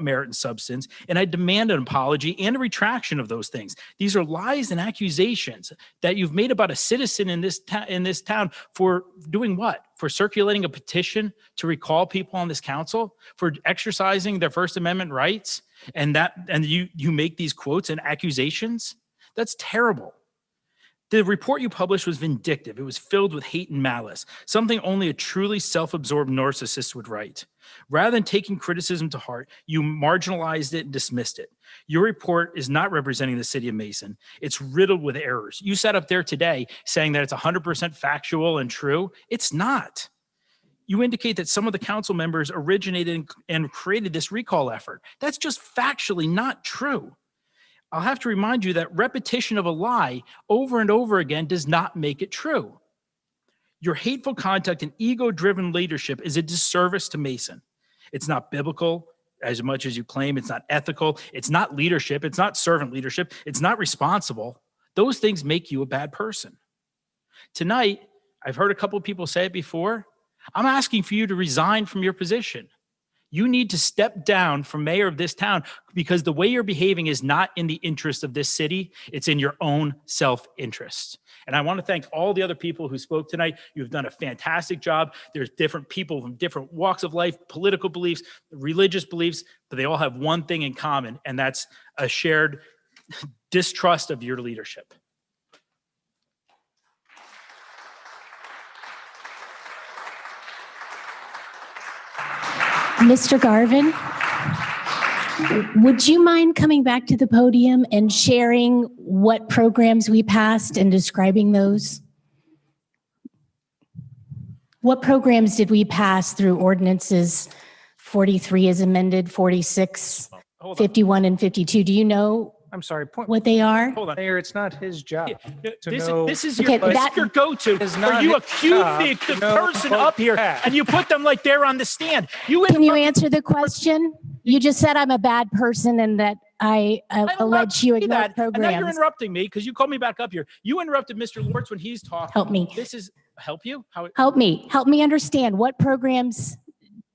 merit and substance, and I demand an apology and a retraction of those things. These are lies and accusations that you've made about a citizen in this ta- in this town for doing what? For circulating a petition to recall people on this council, for exercising their First Amendment rights, and that and you you make these quotes and accusations? That's terrible. The report you published was vindictive. It was filled with hate and malice, something only a truly self absorbed narcissist would write. Rather than taking criticism to heart, you marginalized it and dismissed it. Your report is not representing the city of Mason. It's riddled with errors. You sat up there today saying that it's 100% factual and true. It's not. You indicate that some of the council members originated and- and created this recall effort. That's just factually not true. I'll have to remind you that repetition of a lie over and over again does not make it true. Your hateful conduct and ego driven leadership is a disservice to Mason. It's not biblical as much as you claim, it's not ethical, it's not leadership, it's not servant leadership, it's not responsible. Those things make you a bad person. Tonight, I've heard a couple of people say it before. I'm asking for you to resign from your position. You need to step down from mayor of this town because the way you're behaving is not in the interest of this city. It's in your own self interest. And I want to thank all the other people who spoke tonight. You've done a fantastic job. There's different people from different walks of life, political beliefs, religious beliefs, but they all have one thing in common, and that's a shared distrust of your leadership. Mr. Garvin, would you mind coming back to the podium and sharing what programs we passed and describing those? What programs did we pass through ordinances 43 as amended, 46, Hold on. 51, and 52? Do you know I'm sorry, point, what they are? Hold on. Mayor, it's not his job. to This, know- this is your, Okay, this that- is your go-to. It's Where not you his accuse job the, to the know person what up here happened. and you put them like they're on the stand. You Can you interrupt- answer the question? You just said I'm a bad person and that I uh, I'm not allege you saying ignored that. And now you're programs. interrupting me because you called me back up here. You interrupted Mr. Lortz when he's talking. Help me. This is help you? How? Help me, help me understand. What programs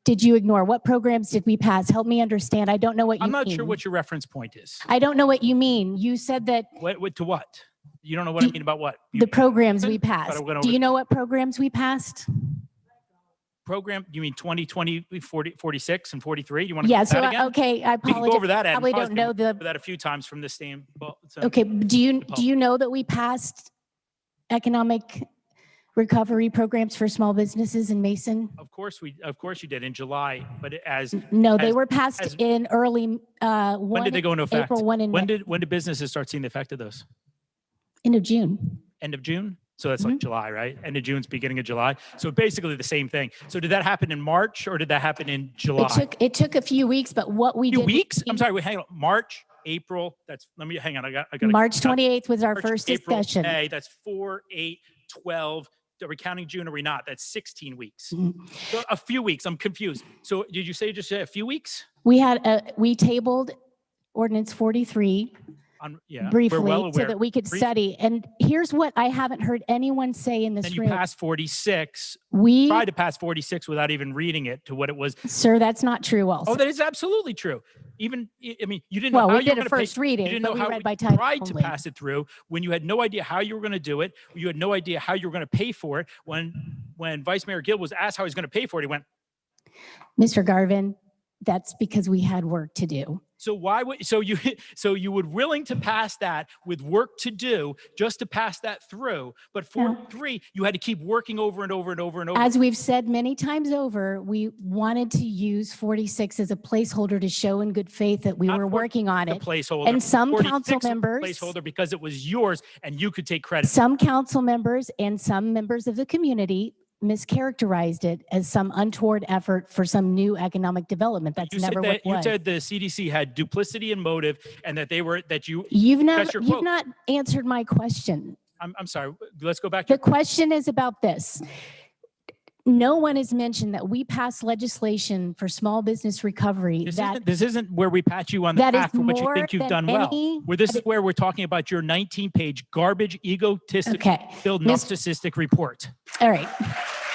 did you ignore? What programs did we pass? Help me understand. I don't know what you I'm mean. not sure what your reference point is. I don't know what you mean. You said that What, what to what? You don't know what I The- mean about what? You- the programs we But I passed. went over- Do you know what programs we passed? program? You mean 20, 20, 40, 46, and 43? You want to Yeah, go so, that I- again? okay, I We can go apologize. over that. Adam. Probably Probably don't know been the, over that a few times from this stand. Well, so- okay, do you, Paul. do you know that we passed economic recovery programs for small businesses in Mason? Of course we, of course you did in July, but as No, they As- were passed as- in early, uh, when did they one, go into effect? April, one When in, did when did businesses start seeing the effect of those? end of June. End of June. So that's Mm-hmm. like July, right? End of June's beginning of July. So basically the same thing. So did that happen in March or did that happen in July? It took, it took a few weeks, but what we few did. weeks. I'm we- sorry. Wait, hang on. March, April. That's let me hang on. I got. I got. March 28th was our first April, discussion. May. That's four, eight, 12. Are we counting June? Are we not? That's 16 weeks. Mhm. So a few weeks. I'm confused. So did you say just say a few weeks? We had, a we tabled ordinance 43 On yeah. We're well briefly so aware. that we could Brief- study. And here's what I haven't heard anyone say in then this you room. passed 46. We, Tried to pass 46 without even reading it to what it was. sir, that's not true Oh, also. that is absolutely true. Even I I mean, you didn't Well, know how we you were did going a to pay first reading, didn't but know we how read we by title tried to only. pass it through when you had no idea how you were going to do it. You had no idea how you were going to pay for it. When when Vice Mayor Gill was asked how he's going to pay for it, he went, Mr. Garvin, that's because we had work to do. "So why would so you so you would willing to pass that with work to do just to pass that through? But for No. three, you had to keep working over and over and over and over. As we've said many times over, we wanted to use 46 as a placeholder to show in good faith that we Not were 40 working on the it. placeholder And some 46 council was the members. placeholder because it was yours and you could take credit. Some council members and some members of the community mischaracterized it as some untoward effort for some new economic development. That's You said never what that it you was. said the CDC had duplicity and motive, and that they were that you. You've never, your you've quote. not answered my question. I'm, I'm sorry. Let's go back. to The question is about this. No one has mentioned that we passed legislation for small business recovery This that, isn't, this isn't where we pat you on the that is back for what you more think you've than done well. any. Where this is where we're talking about your 19-page garbage, egotistic, Okay, filled Miss- narcissistic report. all right.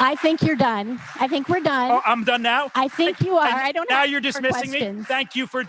I think you're done. I think we're done. Oh, I'm done now. I think you are. and I don't Now have you're more dismissing me. questions. Thank you for